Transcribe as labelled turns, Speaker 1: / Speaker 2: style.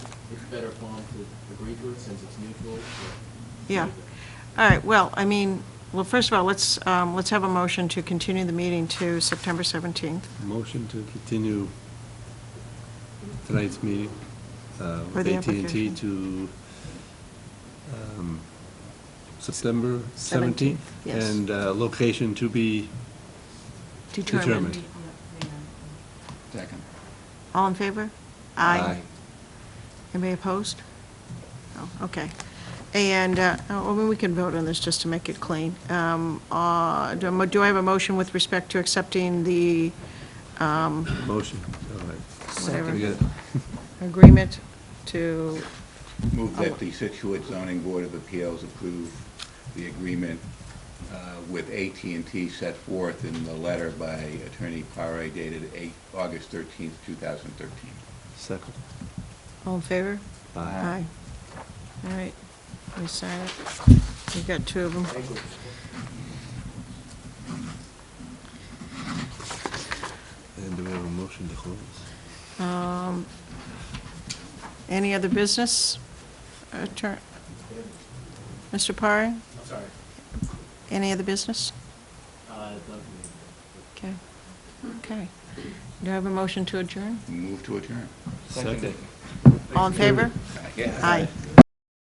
Speaker 1: better form to agree to it since it's neutral?
Speaker 2: Yeah. All right, well, I mean, well, first of all, let's, um, let's have a motion to continue the meeting to September 17th.
Speaker 3: Motion to continue tonight's meeting uh,
Speaker 2: For
Speaker 3: with
Speaker 2: the
Speaker 3: at and t
Speaker 2: application.
Speaker 3: to um, September 17th.
Speaker 2: Seventeenth, yes.
Speaker 3: And uh, location to be, Determined.
Speaker 4: Second.
Speaker 2: All in favor?
Speaker 3: Aye.
Speaker 2: Anybody opposed? Oh, okay. And, uh, oh, well, we can vote on this just to make it clean. Um, uh, Do I- do I have a motion with respect to accepting the um,
Speaker 3: motion, all right.
Speaker 2: Whatever.
Speaker 3: We
Speaker 4: Second.
Speaker 3: got-
Speaker 2: agreement to,
Speaker 5: Move that the Situate Zoning Board of Appeals approve the agreement uh, with at and t set forth in the letter by Attorney Pare dated 8, August 13th, 2013.
Speaker 3: Second.
Speaker 2: all in favor?
Speaker 3: Aye.
Speaker 2: Aye. All right, we sign it. We've got two of them.
Speaker 3: And do we have a motion to close?
Speaker 2: Um, Any other business? Attorney, Mr. Parry,
Speaker 1: I'm sorry.
Speaker 2: any other business?
Speaker 1: Uh,
Speaker 2: Okay, okay. Do I have a motion to adjourn?
Speaker 5: Move to adjourn.
Speaker 3: Second.
Speaker 2: All in favor?
Speaker 5: Yeah.
Speaker 2: Aye.